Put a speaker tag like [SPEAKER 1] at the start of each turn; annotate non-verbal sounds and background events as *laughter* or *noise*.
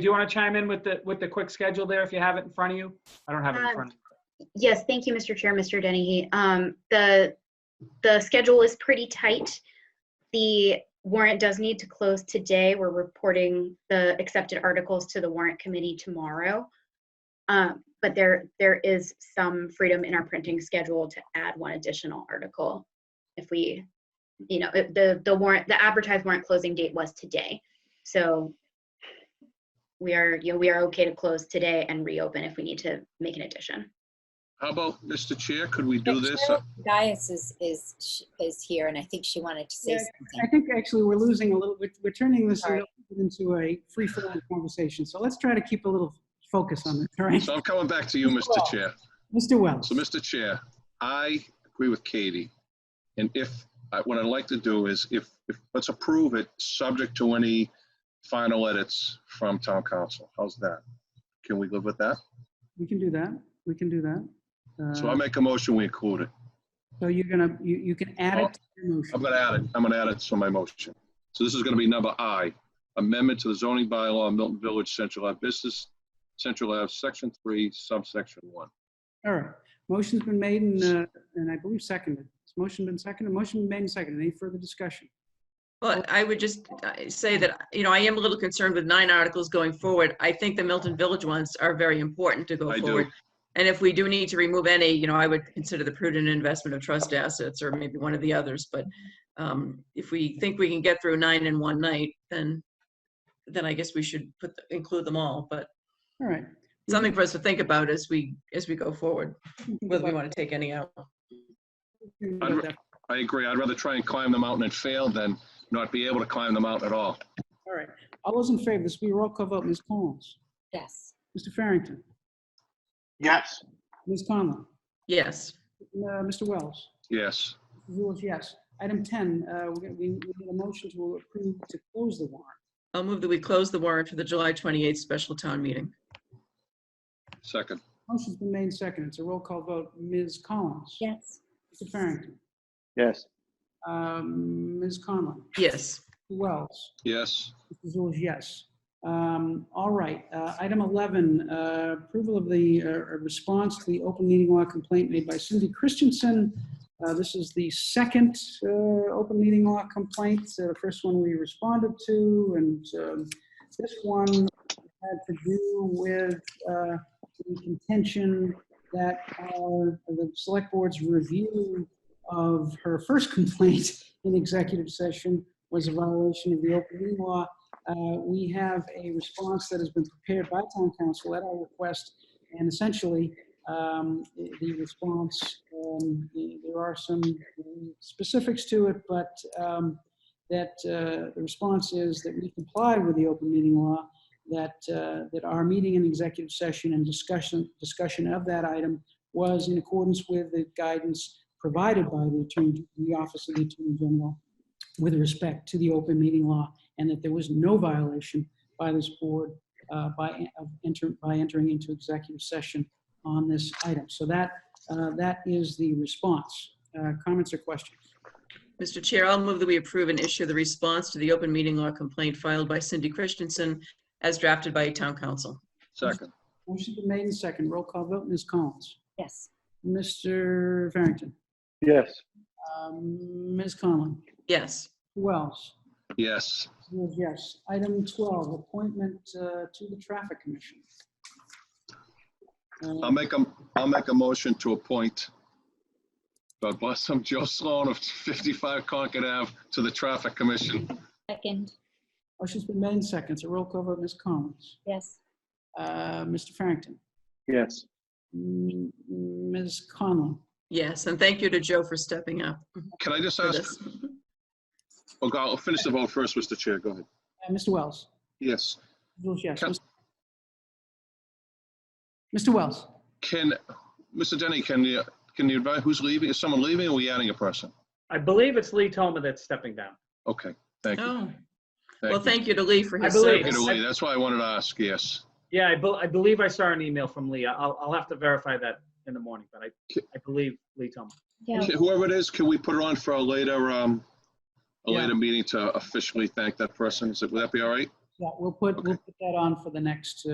[SPEAKER 1] do you want to chime in with the, with the quick schedule there if you have it in front of you? I don't have it in
[SPEAKER 2] Um,
[SPEAKER 1] front. of me.
[SPEAKER 2] Yes, thank you, Mr. Chair, Mr. Dennehy. Um, The, the schedule is pretty tight. The warrant does need to close today. We're reporting the accepted articles to the warrant committee tomorrow. Um, But there, there is some freedom in our printing schedule to add one additional article if we, you know, if the, the warrant, the advertised warrant closing date was today. So we are, you know, we are okay to close today and reopen if we need to make an addition.
[SPEAKER 3] How about, Mr. Chair, could we do this? uh,
[SPEAKER 4] Cheryl Gaius is, is, sh- is here, and I think she wanted to say
[SPEAKER 5] Yeah, I
[SPEAKER 4] something.
[SPEAKER 5] think actually we're losing a little, we're, we're turning this
[SPEAKER 4] Sorry.
[SPEAKER 5] into a free flowing conversation. So let's try to keep a little focus on this, all right? *laughs*
[SPEAKER 3] So I'm coming back to you, Mr.
[SPEAKER 4] Cool.
[SPEAKER 3] Chair.
[SPEAKER 5] Mr. Wells,
[SPEAKER 3] So, Mr. Chair, I agree with Katie. And if, I- what I'd like to do is if, if, let's approve it, subject to any final edits from town council. How's that? Can we live with that?
[SPEAKER 5] we can do that. We can do that.
[SPEAKER 3] So
[SPEAKER 5] Uh,
[SPEAKER 3] I make a motion, we include it.
[SPEAKER 5] So you're gonna, you, you can add it to your motion.
[SPEAKER 3] Oh, I'm gonna add it, I'm gonna add it to my motion. So this is gonna be number I, amendment to the zoning bylaw of Milton Village Central Ave Business, Central Ave, Section 3, subsection 1.
[SPEAKER 5] All right, motion's been made and, uh, and I believe seconded. Has motion been seconded? Motion been made and seconded. Any further discussion?
[SPEAKER 6] Well, I would just uh, say that, you know, I am a little concerned with nine articles going forward. I think the Milton Village ones are very important to go
[SPEAKER 3] I do.
[SPEAKER 6] forward. And if we do need to remove any, you know, I would consider the prudent investment of trust assets or maybe one of the others. But um, if we think we can get through nine in one night, then, then I guess we should put, include them all. But
[SPEAKER 5] All right.
[SPEAKER 6] something for us to think about as we, as we go forward, whether we want to take any out.
[SPEAKER 3] I'd ra- I agree, I'd rather try and climb the mountain and fail than not be able to climb the mountain at all.
[SPEAKER 5] All right, all those in favor, this will be a roll call vote. Ms. Collins,
[SPEAKER 4] Yes.
[SPEAKER 5] Mr. Farrington,
[SPEAKER 7] yes,
[SPEAKER 5] Ms. Conlon,
[SPEAKER 6] Yes.
[SPEAKER 5] uh, Mr. Wells.
[SPEAKER 3] Yes,
[SPEAKER 5] Rule is yes. Item 10, uh, we're gonna- we we need a motion to approve to close the warrant.
[SPEAKER 6] I'll move that we close the warrant for the July 28th special town meeting.
[SPEAKER 3] second,
[SPEAKER 5] Motion's been made and seconded. It's a roll call vote. Ms. Collins?
[SPEAKER 4] Yes.
[SPEAKER 5] Mr. Farrington?
[SPEAKER 7] yes,
[SPEAKER 5] Um, Ms. Conlon?
[SPEAKER 6] Yes.
[SPEAKER 5] Mr. Wells?
[SPEAKER 3] yes,
[SPEAKER 5] Mr. Zoll is yes. Um, All right, uh, item 11, uh, approval of the uh, response to the open meeting law complaint made by Cindy Christensen. Uh, This is the second uh, open meeting law complaint, Uh, the first one we responded to, and um, this one had to do with uh, the contention that uh, the select board's review of her first *laughs* complaint in executive session was a violation of the open meeting law. Uh, We have a response that has been prepared by town council at our request, and essentially, um, the the response, um, the- there are some specifics to it, but um, that uh, the response is that we comply with the open meeting law, that, uh, that our meeting in executive session and discussion, discussion of that item was in accordance with the guidance provided by the attorney, the Office of the Attorney General with respect to the open meeting law and that there was no violation by this board uh, by, of enter, by entering into executive session on this item. So that, uh, that is the response. Uh, Comments or questions?
[SPEAKER 6] Mr. Chair, I'll move that we approve and issue the response to the open meeting law complaint filed by Cindy Christensen as drafted by town council.
[SPEAKER 3] second,
[SPEAKER 5] Motion's been made and second. Roll call vote, Ms. Collins.
[SPEAKER 4] Yes.
[SPEAKER 5] Mr. Farrington.
[SPEAKER 7] yes,
[SPEAKER 5] um, Ms. Conlon.
[SPEAKER 6] Yes.
[SPEAKER 5] Who else?
[SPEAKER 3] yes,
[SPEAKER 5] Yes, Yes. Item 12, appointment uh, to the Traffic Commission. Uh,
[SPEAKER 3] I'll make a, I'll make a motion to appoint God bless him, Joe Sloan of 55 Concord Ave to the Traffic Commission.
[SPEAKER 4] Second.
[SPEAKER 5] Motion's been made in seconds. A roll call vote, Ms. Collins.
[SPEAKER 4] Yes.
[SPEAKER 5] Uh, Mr. Farrington.
[SPEAKER 7] yes.
[SPEAKER 5] M- Ms. Conlon.
[SPEAKER 6] Yes. And thank you to Joe for stepping up
[SPEAKER 3] Can I just
[SPEAKER 6] for
[SPEAKER 3] ask,
[SPEAKER 6] this.
[SPEAKER 3] Okay, I'll finish the vote first, Mr. Chair, go ahead.
[SPEAKER 5] Uh, Mr. Wells.
[SPEAKER 3] Yes.
[SPEAKER 5] Votes yes.
[SPEAKER 3] Can-
[SPEAKER 5] Mr. Wells.
[SPEAKER 3] Can, Mr. Denny, can you, can you advise who's leaving? Is someone leaving or are we adding a person?
[SPEAKER 1] I believe it's Lee Toma that's stepping down.
[SPEAKER 3] Okay, thank you.
[SPEAKER 6] Oh, well,
[SPEAKER 3] you.
[SPEAKER 6] thank you to Lee for
[SPEAKER 1] I
[SPEAKER 6] his
[SPEAKER 1] believe-
[SPEAKER 3] Take it
[SPEAKER 6] service.
[SPEAKER 3] away. That's why I wanted to ask, yes.
[SPEAKER 1] Yeah, I, bel I believe I saw an email from Lee. I'll, I'll have to verify that in the morning, but I, I believe Lee Toma.
[SPEAKER 4] Yeah.
[SPEAKER 3] Whoever it is, can we put it on for a later, um, a
[SPEAKER 5] Yeah.
[SPEAKER 3] later meeting to officially thank that person? Is it, would that be all right?
[SPEAKER 5] Yeah, we'll put, we'll put that on for the next, uh,